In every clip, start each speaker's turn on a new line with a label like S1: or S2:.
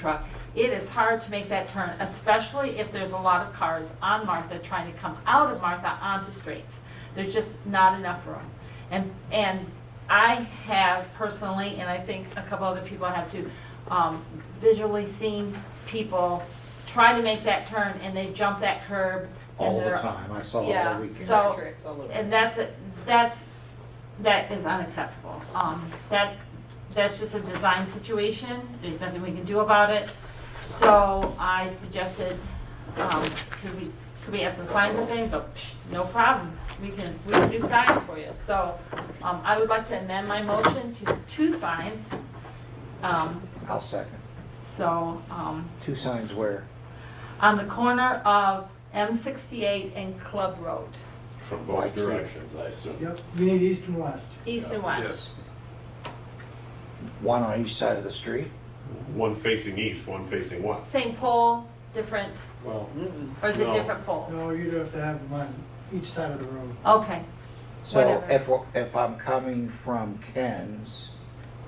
S1: truck, it is hard to make that turn, especially if there's a lot of cars on Martha trying to come out of Martha onto Straits. There's just not enough room. And, and I have personally, and I think a couple other people have too, um, visually seen people try to make that turn and they jump that curb. and
S2: all the
S1: they're-
S2: time. I saw it
S1: Yeah,
S2: all weekend.
S1: so-
S3: Tricks all over.
S1: And that's, that's, that is unacceptable. Um, that, that's just a design situation, there's nothing we can do about it. So I suggested, um, could we, could we add some signs and things, but psh, no problem, we can, we can do signs for you. So, um, I would like to amend my motion to two signs, um,
S2: I'll second.
S1: so, um,
S2: Two signs where?
S1: on the corner of M sixty-eight and Club Road,
S4: From both directions, I assume.
S5: Yep, you need east and west.
S1: east and west.
S2: One on each side of the street?
S4: One facing east, one facing west.
S1: Same pole, different
S4: Well,
S3: Mm-mm.
S1: Or is it
S4: No.
S1: different
S5: No,
S1: poles?
S5: you'd have to have one each side of the road.
S1: Okay,
S2: So if,
S1: Whatever.
S2: if I'm coming from Ken's,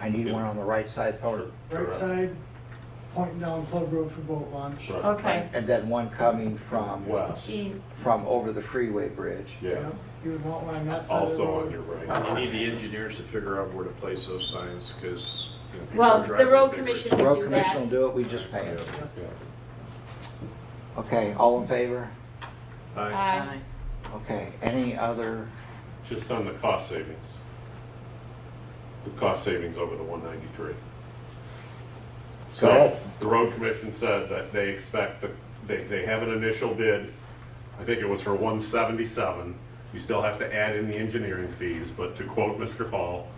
S2: I need one on the right side
S4: or-
S2: corner.
S5: Right
S4: correct.
S5: side pointing down Club Road for boat launch.
S4: Right.
S1: okay.
S2: And then one coming from,
S4: West,
S1: E-
S2: from over the freeway bridge.
S4: yeah,
S5: Yep, You would want one on that side of the road.
S4: also on your
S6: We
S4: right.
S6: need the engineers to figure out where to place those signs, because, you know. people
S1: Well,
S6: are
S1: the
S6: driving
S1: road
S6: big
S1: commission-
S6: roads.
S2: Road
S1: do
S2: commission
S1: that.
S2: will do it, we just pay it.
S4: Yeah.
S2: Okay, all in favor?
S6: Aye.
S1: I-
S2: Okay, any other,
S4: Just on the cost savings. The cost savings over the one ninety-three.
S2: Go
S4: So,
S2: ahead.
S4: the road commission said that they expect, that they, they have an initial bid, I think it was for one seventy-seven. You still have to add in the engineering fees, but to quote Mr. Paul,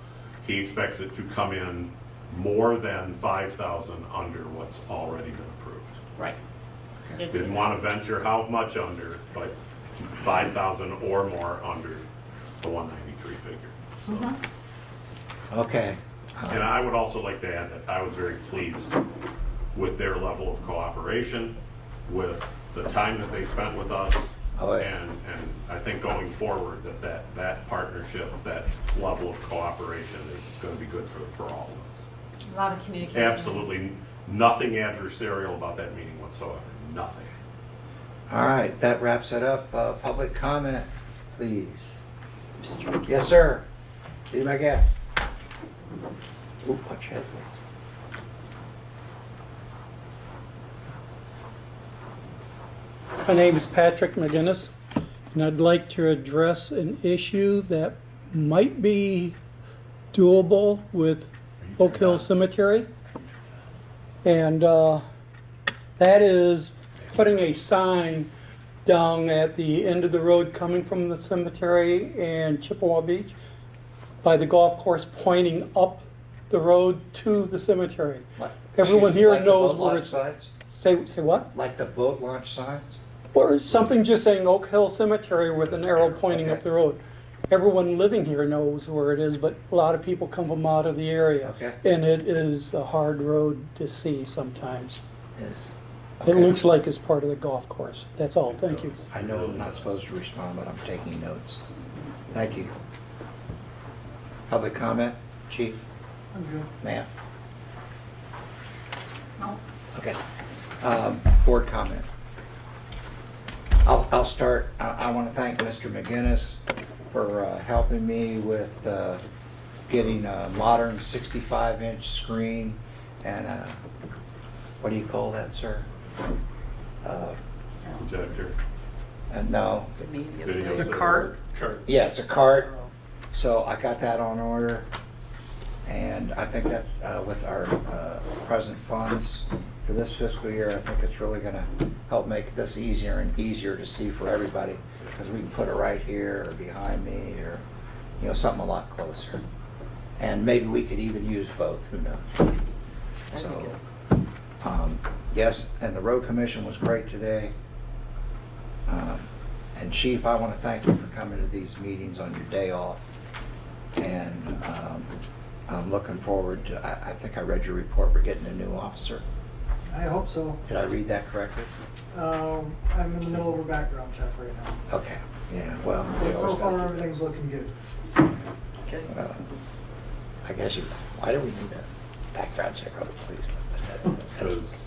S4: he expects it to come in more than five thousand under what's already been approved.
S1: Right. Did see
S4: Didn't
S1: that.
S4: want to venture how much under, but 5,000 or more under the 193 figure. So-
S2: okay.
S4: And I would also like to add that I was very pleased with their level of cooperation, with the time that they spent with us.
S2: Oh, yeah.
S4: And, and I think going forward, that, that, that partnership, that level of cooperation is going to be good for, for all of us.
S1: A lot of communication.
S4: Absolutely nothing adversarial about that meeting whatsoever, nothing.
S2: All right, that wraps it up. Uh, public comment, please. Yes, sir. Be my guest. Ooh, punch head.
S7: My name is Patrick McGinnis, and I'd like to address an issue that might be doable with Oak Hill Cemetery. And uh, that is putting a sign down at the end of the road coming from the cemetery and Chippewa Beach by the golf course pointing up the road to the cemetery.
S2: Like-
S7: Everyone
S2: excuse me,
S7: here
S2: like the
S7: knows
S2: boat
S7: where
S2: launch
S7: it's-
S2: signs?
S7: Say, say what?
S2: Like the boat launch signs?
S7: Or something just saying Oak Hill Cemetery with an arrow pointing up the road. Everyone living here knows where it is, but a lot of people come from out of the area.
S2: Okay.
S7: And it is a hard road to see sometimes.
S2: Yes.
S7: It
S2: Okay.
S7: looks like it's part of the golf course. That's all, thank you.
S2: I know I'm not supposed to respond, but I'm taking notes. Thank you. Public comment, chief,
S5: I'm good.
S2: ma'am?
S1: No.
S2: Okay. Um, Board comment. I'll, I'll start, I, I want to thank Mr. McGinnis for uh, helping me with uh, getting a modern 65-inch screen and a, what do you call that, sir? Uh,
S4: Projector.
S2: And no,
S4: Video
S3: The
S4: server.
S3: cart?
S6: Kurt,
S2: yeah, it's a cart. So I got that on order, and I think that's uh, with our uh, present funds for this fiscal year. I think it's really going to help make this easier and easier to see for everybody, because we can put it right here or behind me or, you know, something a lot closer. And maybe we could even use both, who knows? So, um, yes, and the road commission was great today. Um, And Chief, I want to thank you for coming to these meetings on your day off. And um, I'm looking forward to, I, I think I read your report, we're getting a new officer.
S5: I hope so.
S2: Did I read that correctly?
S5: Um, I'm in the middle of a background check right now.
S2: Okay, yeah, well. we
S5: But so
S2: always
S5: far,
S2: gotta do that.
S5: everything's looking good.
S3: Okay.
S2: Uh, I guess you, why do we need a background check on the police?
S1: uh,
S4: Because